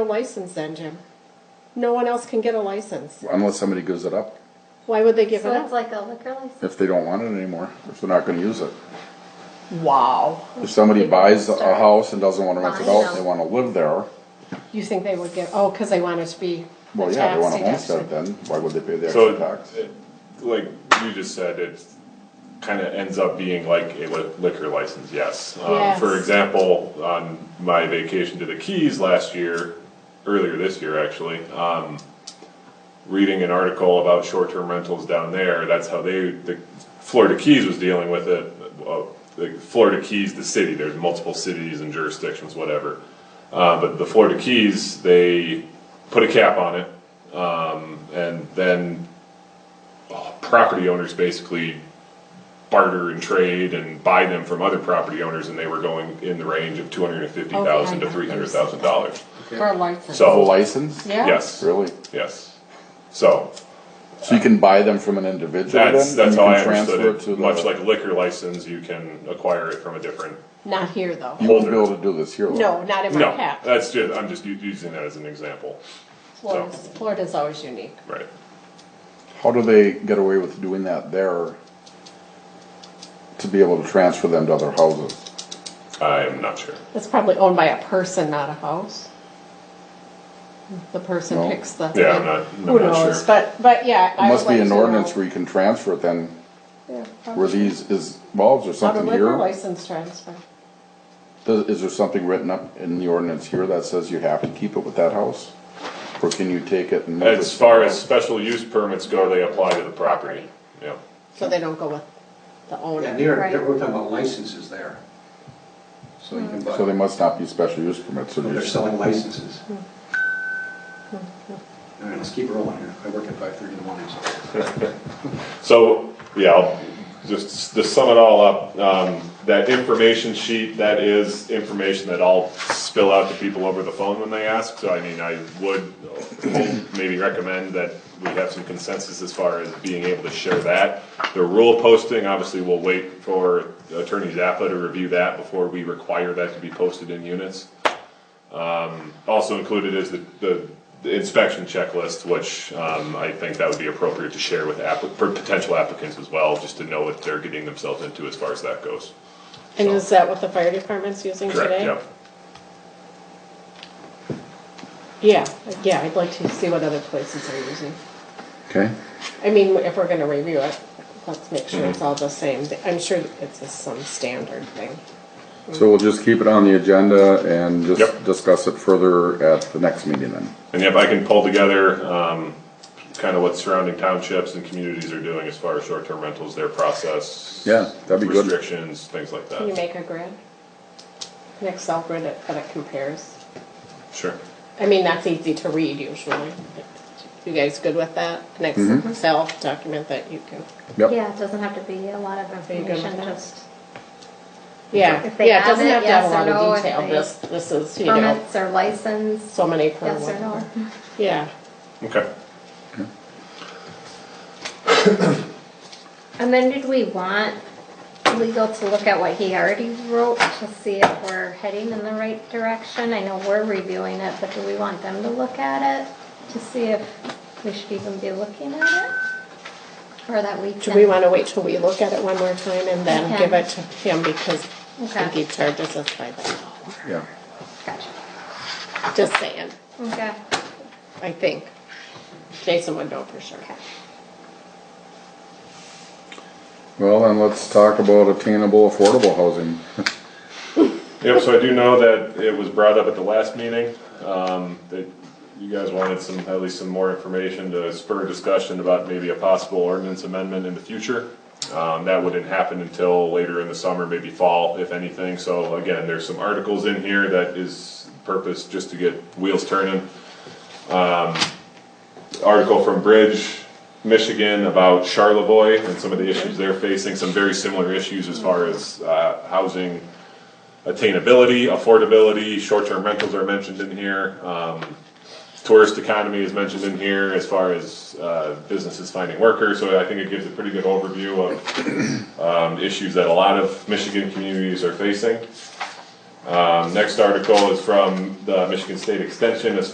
a license then, Jim. No one else can get a license. unless somebody gives it up, Why would they give it So it's up? like a liquor license. if they don't want it anymore, if they're not gonna use it. Wow. If somebody buys a house and doesn't wanna rent it out, and they wanna live there, You think they would give, oh, because they want it to be well, a yeah, they tax wanna homestead deduction. then, why would they pay the So, extra tax? it- like you just said, it kinda ends up being like a li- liquor license, yes. Um, Yes. For example, on my vacation to the Keys last year, earlier this year actually, um, reading an article about short-term rentals down there, that's how they, the Florida Keys was dealing with it. uh, The Florida Keys, the city, there's multiple cities and jurisdictions, whatever. Uh, but the Florida Keys, they put a cap on it, um, and then uh, property owners basically barter and trade and buy them from other property owners, and they were going in the range of two hundred and fifty thousand to three hundred thousand dollars. For a license. A So, license? Yeah. yes, Really? yes. So, So you can buy them from an individual then? that's, and that's you how can I understood transfer to it, the- much like liquor license, you can acquire it from a different, Not here, though. You won't be able to do this here. though. No, not in my no, hat. that's just, I'm just u- using that as an example, Florida's, Florida's always unique. right? How do they get away with doing that there to be able to transfer them to other houses? I'm not sure. It's probably owned by a person, not a house. The person No. picks the. Yeah, I'm not- I'm Who not knows, sure. but, but yeah. There must be an ordinance read where you can transfer it then, where Where these is, well, is Out there of something liquor here? license transfer. Does- Is there something written up in the ordinance here that says you have to keep it with that house? Or can you take it and move it? As far as special use permits go, they apply to the property, yeah. So they don't go with the Yeah, owner. they're, Right. they're- we're talking about licenses there. So you can buy, So they must not be special use permits, so they're there's- selling licenses. All right, let's keep rolling here. I work at five thirty in the morning, so. So, yeah, I'll just to sum it all up, um, that information sheet, that is information that I'll spill out to people over the phone when they ask. So I mean, I would maybe recommend that we have some consensus as far as being able to share that. The rule posting, obviously, we'll wait for Attorney Zappa to review that before we require that to be posted in units. Also included is the, the the inspection checklist, which, um, I think that would be appropriate to share with applic, for potential applicants as well, just to know what they're getting themselves into as far as that goes. And is that what the fire department's using today? Correct, yeah. Yeah, yeah, I'd like to see what other places are using. okay? I mean, if we're gonna review it, let's make sure it's all the same. I'm sure it's just some standard thing. So we'll just keep it on the agenda and just Yep. discuss it further at the next meeting then. And if I can pull together, um, kind of what surrounding townships and communities are doing as far as short-term rentals, their process. Yeah, that'd be good. Restrictions, things like Can you that. make a grid? An Excel grid that, that it compares? Sure. I mean, that's easy to read usually. You guys good with that? An Excel document that you can, Yep, Yeah, it doesn't have to be a lot of you good with information, that? just yeah, If they yeah, it have doesn't it, have to have a yes or lot no, of if detail. they- This, this is, you know, permits or license, so many per yes or one. no. Yeah, Okay. And then did we want legal to look at what he already wrote to see if we're heading in the right direction? I know we're reviewing it, but do we want them to look at it to see if we should even be looking at it? Or that we can? do we wanna wait till we look at it one more time and then Okay. give it to him because I think Okay. he charges us by the hour? yeah. Gotcha. Just saying. Okay. I think. Jason would know for sure. Well, then let's talk about attainable affordable housing. Yep, so I do know that it was brought up at the last meeting, um, that you guys wanted some, at least some more information to spur discussion about maybe a possible ordinance amendment in the future. Um, that wouldn't happen until later in the summer, maybe fall, if anything, so again, there's some articles in here that is purposed just to get wheels turning Um, article from Bridge, Michigan about Charlevoix and some of the issues they're facing, some very similar issues as far as uh, housing attainability, affordability, short-term rentals are mentioned in here. um, Tourist economy is mentioned in here as far as uh, businesses finding workers, so I think it gives a pretty good overview of um, issues that a lot of Michigan communities are facing. Um, Next article is from the Michigan State Extension as